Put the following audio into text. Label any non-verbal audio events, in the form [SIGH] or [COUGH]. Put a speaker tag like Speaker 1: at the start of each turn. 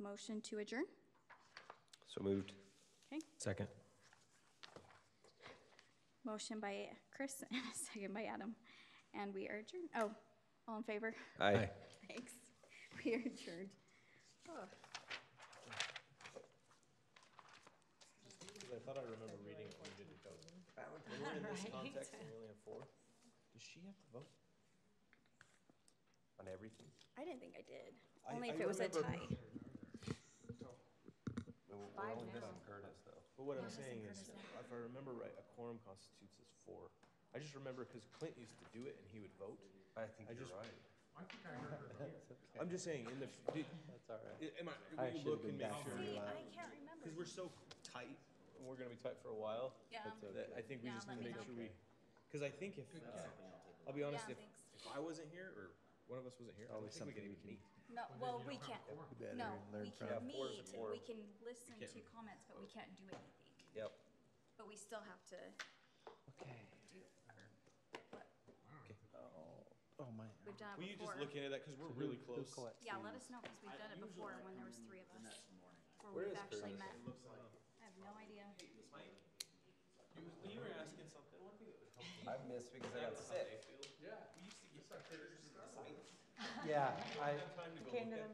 Speaker 1: motion to adjourn?
Speaker 2: So moved.
Speaker 1: Okay,
Speaker 3: Second.
Speaker 1: motion by Chris [LAUGHS] and a second by Adam. And we are adjourned. Oh, all in favor?
Speaker 2: Aye.
Speaker 3: Aye.
Speaker 1: Thanks. [LAUGHS] We are adjourned. Oh.
Speaker 3: I thought I remember reading it when we did the code. When we're in this context and we only have four, does she have to vote?
Speaker 2: On everything.
Speaker 1: I didn't think I did.
Speaker 3: I-
Speaker 1: Only
Speaker 3: I
Speaker 1: if it was a tie.
Speaker 3: remember-
Speaker 2: We're we're
Speaker 4: Five
Speaker 2: only
Speaker 4: now.
Speaker 2: missing Curtis, though.
Speaker 3: But what I'm saying is, if I remember right, a quorum constitutes as four. I just remember because Clint used to do it and he would vote.
Speaker 2: I
Speaker 3: I
Speaker 2: think you're
Speaker 3: just-
Speaker 2: right.
Speaker 3: I'm just saying, in the, f- did,
Speaker 2: That's all right.
Speaker 3: i- am
Speaker 2: I
Speaker 3: I, will you
Speaker 2: should've
Speaker 3: look
Speaker 2: been
Speaker 3: and make
Speaker 2: back
Speaker 3: sure?
Speaker 2: there.
Speaker 1: See, I
Speaker 2: You're allowed.
Speaker 1: can't remember.
Speaker 3: Because we're so tight, and we're gonna be tight for a while,
Speaker 1: Yeah,
Speaker 3: that I think we
Speaker 1: Yeah,
Speaker 3: just
Speaker 1: let
Speaker 3: need to
Speaker 1: me know.
Speaker 3: make sure we, because I think if, uh, I'll be
Speaker 1: yeah,
Speaker 3: honest, if,
Speaker 1: thanks.
Speaker 3: if I wasn't here or one of us wasn't here, I don't
Speaker 2: Always
Speaker 3: think we could
Speaker 2: something we
Speaker 3: even
Speaker 2: can-
Speaker 3: meet.
Speaker 1: No, well, we can't, no, we
Speaker 3: Yeah,
Speaker 1: can
Speaker 3: four is a
Speaker 1: meet,
Speaker 3: quorum.
Speaker 1: we can listen
Speaker 3: can't
Speaker 1: to comments, but we can't do anything.
Speaker 3: Yep.
Speaker 1: But we still have to
Speaker 2: Okay.
Speaker 1: do, or, what,
Speaker 2: Oh, my.
Speaker 1: we've done
Speaker 3: Will
Speaker 1: it
Speaker 3: you just
Speaker 1: before.
Speaker 3: look into that, because we're really close.
Speaker 1: Yeah, let us know, because we've done it before when there was three of us. Where
Speaker 3: is
Speaker 1: we've actually met. I have no idea.
Speaker 3: When you were asking something, one thing that would help
Speaker 2: I missed because I got sick.
Speaker 3: Yeah. We used to get pictures.
Speaker 2: Yeah, I.
Speaker 3: Time to go
Speaker 4: Came to the